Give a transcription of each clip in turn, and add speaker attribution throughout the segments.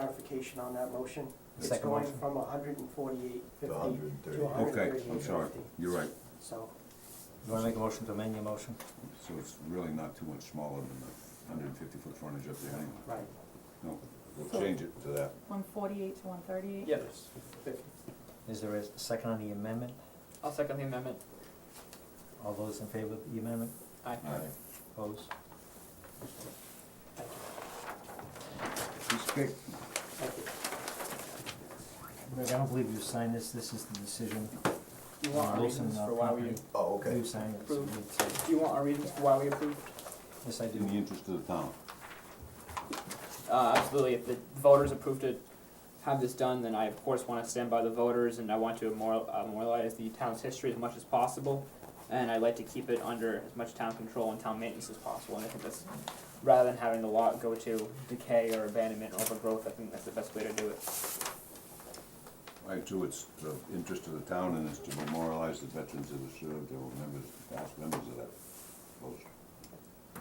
Speaker 1: clarification on that motion.
Speaker 2: The
Speaker 1: It's
Speaker 2: second
Speaker 1: going
Speaker 2: motion?
Speaker 1: from hundred and forty-eight
Speaker 3: to
Speaker 1: fifty
Speaker 3: hundred and
Speaker 1: to
Speaker 3: thirty.
Speaker 1: hundred and
Speaker 4: Okay,
Speaker 1: thirty-eight
Speaker 4: I'm sorry,
Speaker 1: fifty.
Speaker 4: you're right,
Speaker 1: So,
Speaker 2: You wanna make a motion to amend your motion?
Speaker 4: so it's really not too much smaller than the hundred and fifty foot frontage up there anyway.
Speaker 1: right,
Speaker 4: No, we'll change it to that.
Speaker 5: One forty-eight to one thirty-eight?
Speaker 6: Yes,
Speaker 1: fifty.
Speaker 2: Is there a second on the amendment?
Speaker 6: I'll second the amendment.
Speaker 2: All those in favor of the amendment,
Speaker 6: Aye.
Speaker 4: Aye.
Speaker 2: opposed?
Speaker 4: It's big.
Speaker 1: thank you.
Speaker 2: Rick, I don't believe you signed this, this is the decision.
Speaker 6: You want our
Speaker 2: Wilson,
Speaker 6: reasons
Speaker 2: uh,
Speaker 6: for why we,
Speaker 2: property.
Speaker 3: Oh, okay.
Speaker 2: You signed it, so
Speaker 6: Approved.
Speaker 2: you take it.
Speaker 6: you want our reasons for why we approved?
Speaker 2: Yes, I do.
Speaker 4: In the interest of the town.
Speaker 6: Uh, absolutely, if the voters approve to have this done, then I of course wanna stand by the voters and I want to immor- uh, memorialize the town's history as much as possible. And I'd like to keep it under as much town control and town maintenance as possible, and I think that's, rather than having the lot go to decay or abandonment or overgrowth, I think that's the best way to do it.
Speaker 4: Right, too, it's the interest of the town and it's to memorialize the veterans that have served, they were members, past members of that post.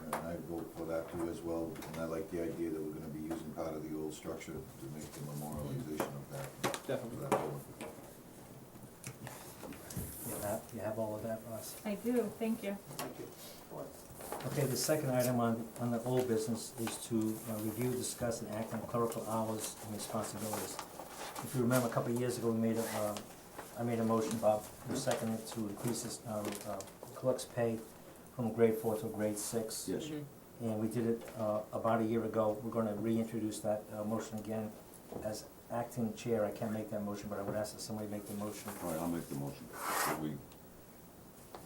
Speaker 3: And I vote for that too as well, and I like the idea that we're gonna be using part of the old structure to make the memorialization of that,
Speaker 6: Definitely.
Speaker 3: of that building.
Speaker 2: You have, you have all of that, Ross?
Speaker 5: I do, thank you.
Speaker 1: Thank you. Board.
Speaker 2: Okay, the second item on, on the old business is to uh, review, discuss, and act on clerical hours and responsibilities. If you remember, a couple of years ago, we made a, uh, I made a motion, Bob, you seconded to increase this, uh, uh, clerk's pay from grade four to grade six.
Speaker 4: Yes.
Speaker 2: And we did it, uh, about a year ago, we're gonna reintroduce that, uh, motion again. As acting chair, I can't make that motion, but I would ask that somebody make the motion.
Speaker 4: All right, I'll make the motion. So we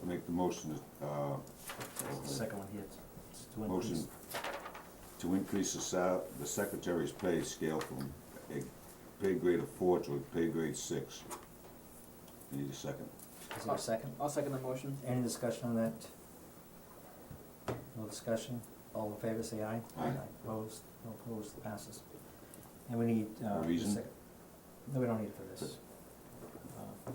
Speaker 4: make the motion, uh,
Speaker 2: The second one here, it's to increase.
Speaker 4: motion to increase the sal- the secretary's pay scale from a pay grade of four to a pay grade six. I Need a second.
Speaker 2: Is there a second?
Speaker 6: I'll second the motion.
Speaker 2: Any discussion on that? No discussion? All in favor, say aye.
Speaker 4: Aye.
Speaker 2: Opposed? No opposed, passes. And we need, uh.
Speaker 4: A
Speaker 2: the
Speaker 4: reason?
Speaker 2: sec- No, we don't need it for this. Uh,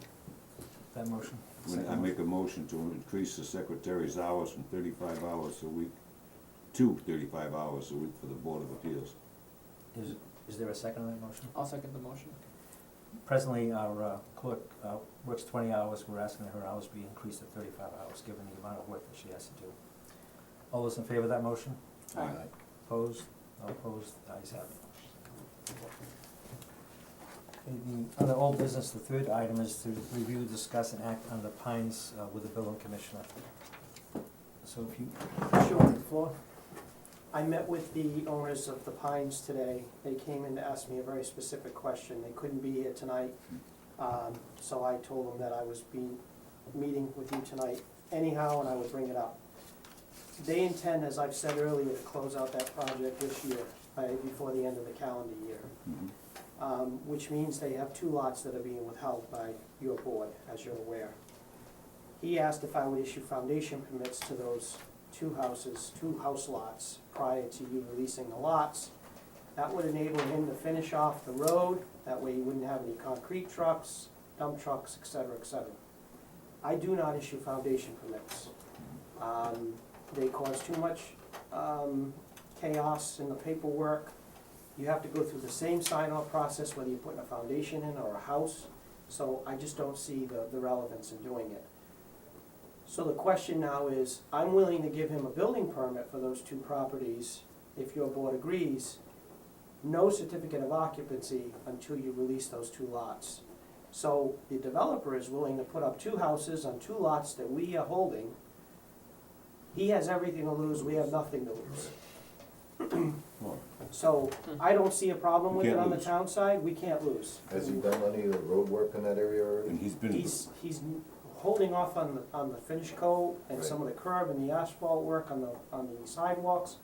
Speaker 2: That motion.
Speaker 4: When I
Speaker 2: second
Speaker 4: make a motion to increase the secretary's hours from thirty-five hours a week to thirty-five hours a week for the Board of Appeals.
Speaker 2: motion. Is, is there a second on that motion?
Speaker 6: I'll second the motion.
Speaker 2: Presently, our uh, clerk uh, works twenty hours, we're asking that her hours be increased to thirty-five hours, given the amount of work that she has to do. All those in favor of that motion?
Speaker 4: Aye.
Speaker 2: Opposed? No opposed? The ayes have it. Okay, The other old business, the third item is to review, discuss, and act on the pines uh, with the building commissioner. So if you,
Speaker 1: Sure.
Speaker 2: floor?
Speaker 1: I met with the owners of the Pines today. They came in to ask me a very specific question. They couldn't be here tonight. Um, so I told them that I was be, meeting with you tonight anyhow, and I would bring it up. They intend, as I've said earlier, to close out that project this year, by, before the end of the calendar year.
Speaker 4: Mhm.
Speaker 1: Um, which means they have two lots that are being withheld by your board, as you're aware. He asked if I would issue foundation permits to those two houses, two house lots, prior to you releasing the lots. That would enable him to finish off the road, that way you wouldn't have any concrete trucks, dump trucks, et cetera, et cetera. I do not issue foundation permits. Um, they cause too much, um, chaos in the paperwork. You have to go through the same sign-off process whether you're putting a foundation in or a house, so I just don't see the, the relevance in doing it. So the question now is, I'm willing to give him a building permit for those two properties if your board agrees. No certificate of occupancy until you release those two lots. So the developer is willing to put up two houses on two lots that we are holding. He has everything to lose, we have nothing to lose.
Speaker 4: Well,
Speaker 1: So I don't see a problem
Speaker 4: We
Speaker 1: with it
Speaker 4: can't
Speaker 1: on the
Speaker 4: lose.
Speaker 1: town side, we can't lose.
Speaker 3: Has he done any of the road work in that area already?
Speaker 4: And he's been,
Speaker 1: He's, he's holding off on the, on the finish coat and some of the curb and the asphalt work on the, on the sidewalks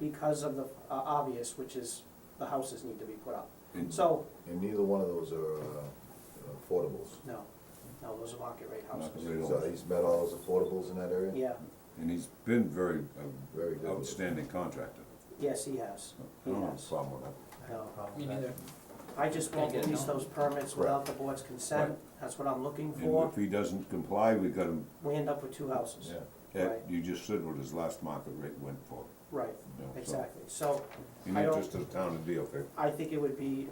Speaker 1: because of the uh, obvious, which is the houses need to be put up.
Speaker 4: and
Speaker 1: So,
Speaker 3: And neither one of those are uh, affordables.
Speaker 1: no, no, those are market rate
Speaker 4: Market
Speaker 1: houses.
Speaker 4: rate.
Speaker 3: So he's met all those affordables in that area?
Speaker 1: Yeah,
Speaker 4: and he's been very uh,
Speaker 3: Very good.
Speaker 4: outstanding contractor.
Speaker 1: yes, he has,
Speaker 4: I don't have a problem with that.
Speaker 1: no.
Speaker 2: problem
Speaker 6: Me
Speaker 2: with that.
Speaker 6: neither.
Speaker 1: I just won't
Speaker 6: Can't get it,
Speaker 1: release
Speaker 6: no.
Speaker 1: those permits without the board's consent,
Speaker 4: Right.
Speaker 1: that's what I'm looking
Speaker 4: And
Speaker 1: for.
Speaker 4: if he doesn't comply, we uh, got him,
Speaker 1: We end up with two houses.
Speaker 3: Yeah.
Speaker 4: at-
Speaker 1: Right.
Speaker 4: you just said what his last market rate went for.
Speaker 1: right,
Speaker 3: you know, so,
Speaker 1: exactly. So
Speaker 4: In
Speaker 1: I
Speaker 4: the
Speaker 1: don't-
Speaker 4: interest of the town and DOK.
Speaker 1: I think it would be,